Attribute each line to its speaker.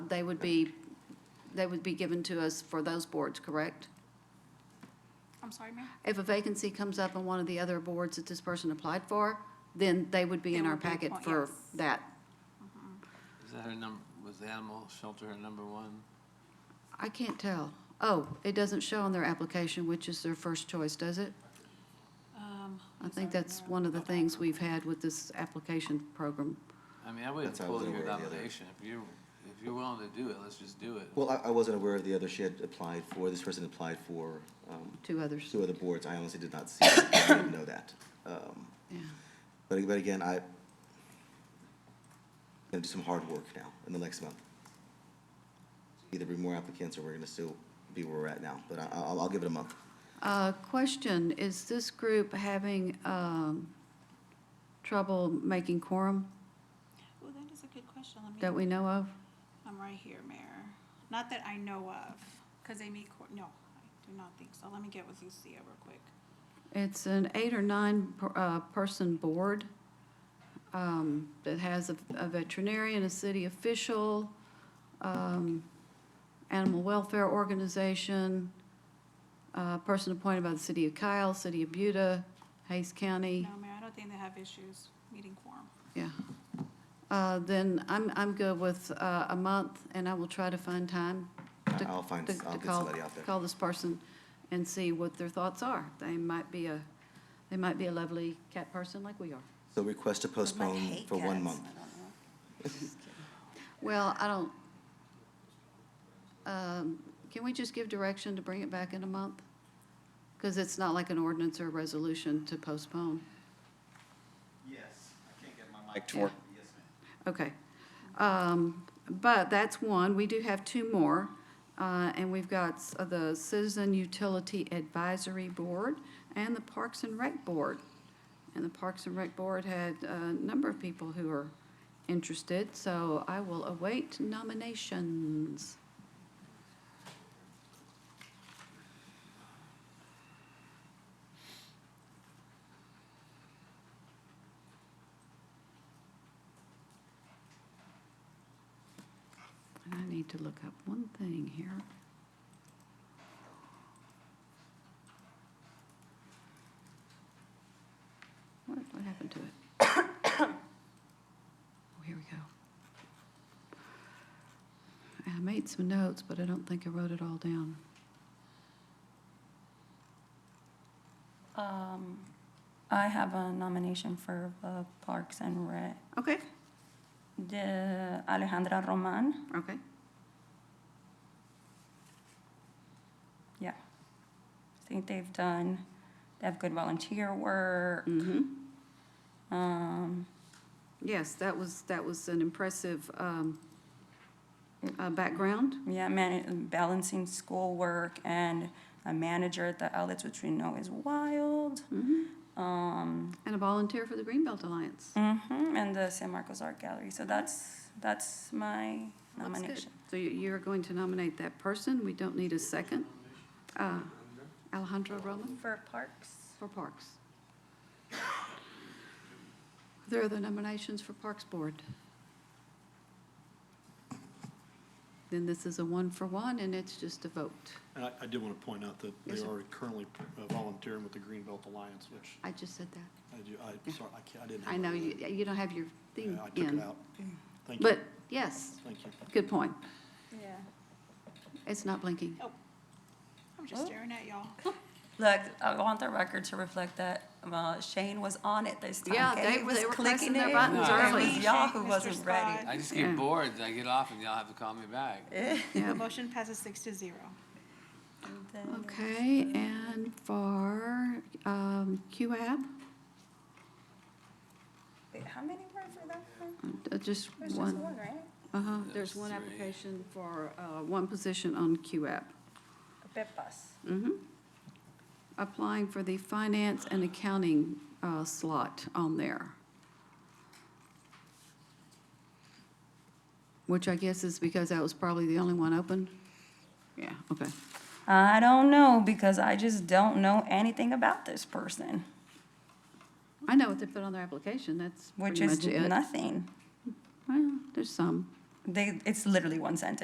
Speaker 1: they would be, they would be given to us for those boards, correct?
Speaker 2: I'm sorry, ma'am?
Speaker 1: If a vacancy comes up on one of the other boards that this person applied for, then they would be in
Speaker 2: They
Speaker 1: our
Speaker 2: would be
Speaker 1: packet
Speaker 2: appoint-
Speaker 1: for
Speaker 2: yes.
Speaker 1: that.
Speaker 3: Is that her number, was the animal shelter her number one?
Speaker 1: I can't tell. Oh, it doesn't show on their application which is their first choice, does it?
Speaker 2: Um,
Speaker 1: I think that's one of the things we've had with this application program.
Speaker 3: I mean, I would have
Speaker 4: That's how I was
Speaker 3: pulled your
Speaker 4: aware of the other.
Speaker 3: nomination. If you're, if you're willing to do it, let's just do it.
Speaker 4: Well, I, I wasn't aware of the other she had applied for, this person applied for, um,
Speaker 1: Two others,
Speaker 4: two other boards, I honestly did not see, it. I didn't know that. Um,
Speaker 1: yeah.
Speaker 4: But, but again, I, gonna do some hard work now, in the next month. Either be more applicants, or we're gonna still be where we're at now, but I, I'll, I'll give it a month.
Speaker 1: Uh, Question, is this group having um, trouble making quorum
Speaker 2: Well, that is a good question. Let
Speaker 1: that
Speaker 2: me,
Speaker 1: we know of?
Speaker 2: I'm right here, Mayor. Not that I know of, because they meet, court. no, I do not think so. Let me get with Lucia real quick.
Speaker 1: It's an eight or nine per- uh, person board um, that has a- a veterinarian, a city official, um, animal welfare organization, uh, person appointed by the city of Kyle, city of Buda, Hayes County.
Speaker 2: No, Mayor, I don't think they have issues meeting quorum.
Speaker 1: Yeah. Uh, Then I'm, I'm good with uh, a month, and I will try to find time. to-
Speaker 4: I'll find-
Speaker 1: to- to
Speaker 4: I'll get
Speaker 1: call-
Speaker 4: somebody out there.
Speaker 1: Call this person and see what their thoughts are. They might be a, they might be a lovely cat person like we are.
Speaker 4: So request to postpone for one month.
Speaker 1: Well, I don't, um, can we just give direction to bring it back in a month? Because it's not like an ordinance or a resolution to postpone.
Speaker 5: Yes, I can't get my mic to work. Yes, ma'am.
Speaker 1: Okay. Um, But that's one. We do have two more. Uh, And we've got s- uh, the Citizen Utility Advisory Board and the Parks and Rec Board. And the Parks and Rec Board had a number of people who are interested, so I will await nominations. And I need to look up one thing here. What, what happened to it? Oh, here we go. I made some notes, but I don't think I wrote it all down.
Speaker 6: Um, I have a nomination for uh, Parks and Rec.
Speaker 1: Okay,
Speaker 6: The Alejandra Roman,
Speaker 1: okay.
Speaker 6: yeah. I think they've done, they have good volunteer work.
Speaker 1: Mm-hmm.
Speaker 6: Um,
Speaker 1: Yes, that was, that was an impressive, um, uh, background.
Speaker 6: yeah, man, balancing schoolwork and a manager at the outlets, which we know is wild.
Speaker 1: Mm-hmm.
Speaker 6: Um,
Speaker 1: And a volunteer for the Greenbelt Alliance.
Speaker 6: mhm, and the San Marcos Art Gallery. So that's, that's my
Speaker 1: That's good.
Speaker 6: nomination.
Speaker 1: So you- you're going to nominate that person. We don't need a second. Uh, Alejandra Roman
Speaker 6: For Parks?
Speaker 1: for Parks. There are the nominations for Parks Board. Then this is a one for one, and it's just a vote.
Speaker 7: And I, I do want to point out that
Speaker 1: Yes,
Speaker 7: they
Speaker 1: sir.
Speaker 7: are currently uh, volunteering with the Greenbelt Alliance, which
Speaker 1: I just said that.
Speaker 7: I do, I, sorry, I can't, I didn't.
Speaker 1: I know you, you don't have your thing
Speaker 7: Yeah, I took it
Speaker 1: in.
Speaker 7: out. Thank you.
Speaker 1: But, yes,
Speaker 7: Thank you.
Speaker 1: good point.
Speaker 6: Yeah.
Speaker 1: It's not blinking.
Speaker 2: I'm just
Speaker 6: Oh.
Speaker 2: staring at y'all.
Speaker 6: Look, I want the record to reflect that uh, Shane was on it this time.
Speaker 1: Yeah,
Speaker 6: okay?
Speaker 1: they
Speaker 6: He
Speaker 1: were-
Speaker 6: was
Speaker 1: they were
Speaker 6: clicking
Speaker 1: pressing their
Speaker 6: it.
Speaker 1: buttons
Speaker 6: It
Speaker 1: early.
Speaker 6: was y'all who
Speaker 2: Mr.
Speaker 6: wasn't ready.
Speaker 2: Scott.
Speaker 3: I just get
Speaker 1: Yeah.
Speaker 3: bored, I get off and y'all have to call me back.
Speaker 2: The
Speaker 1: Yeah.
Speaker 2: motion passes six to zero.
Speaker 6: And then-
Speaker 1: Okay, and for um, QAB,
Speaker 6: Wait, How many were for that one?
Speaker 1: uh, just
Speaker 6: There's just
Speaker 1: one.
Speaker 6: one, right?
Speaker 1: Uh-huh,
Speaker 3: There's
Speaker 1: there's one
Speaker 3: three.
Speaker 1: application for uh, one position on QAB.
Speaker 6: Pepas.
Speaker 1: Mm-hmm. Applying for the finance and accounting uh, slot on there. Which I guess is because that was probably the only one open? Yeah, okay.
Speaker 6: I don't know, because I just don't know anything about this person,
Speaker 1: I know what they put on their application, that's
Speaker 6: which
Speaker 1: pretty
Speaker 6: is
Speaker 1: much it.
Speaker 6: nothing.
Speaker 1: Well, there's some.
Speaker 6: They, it's literally one sentence.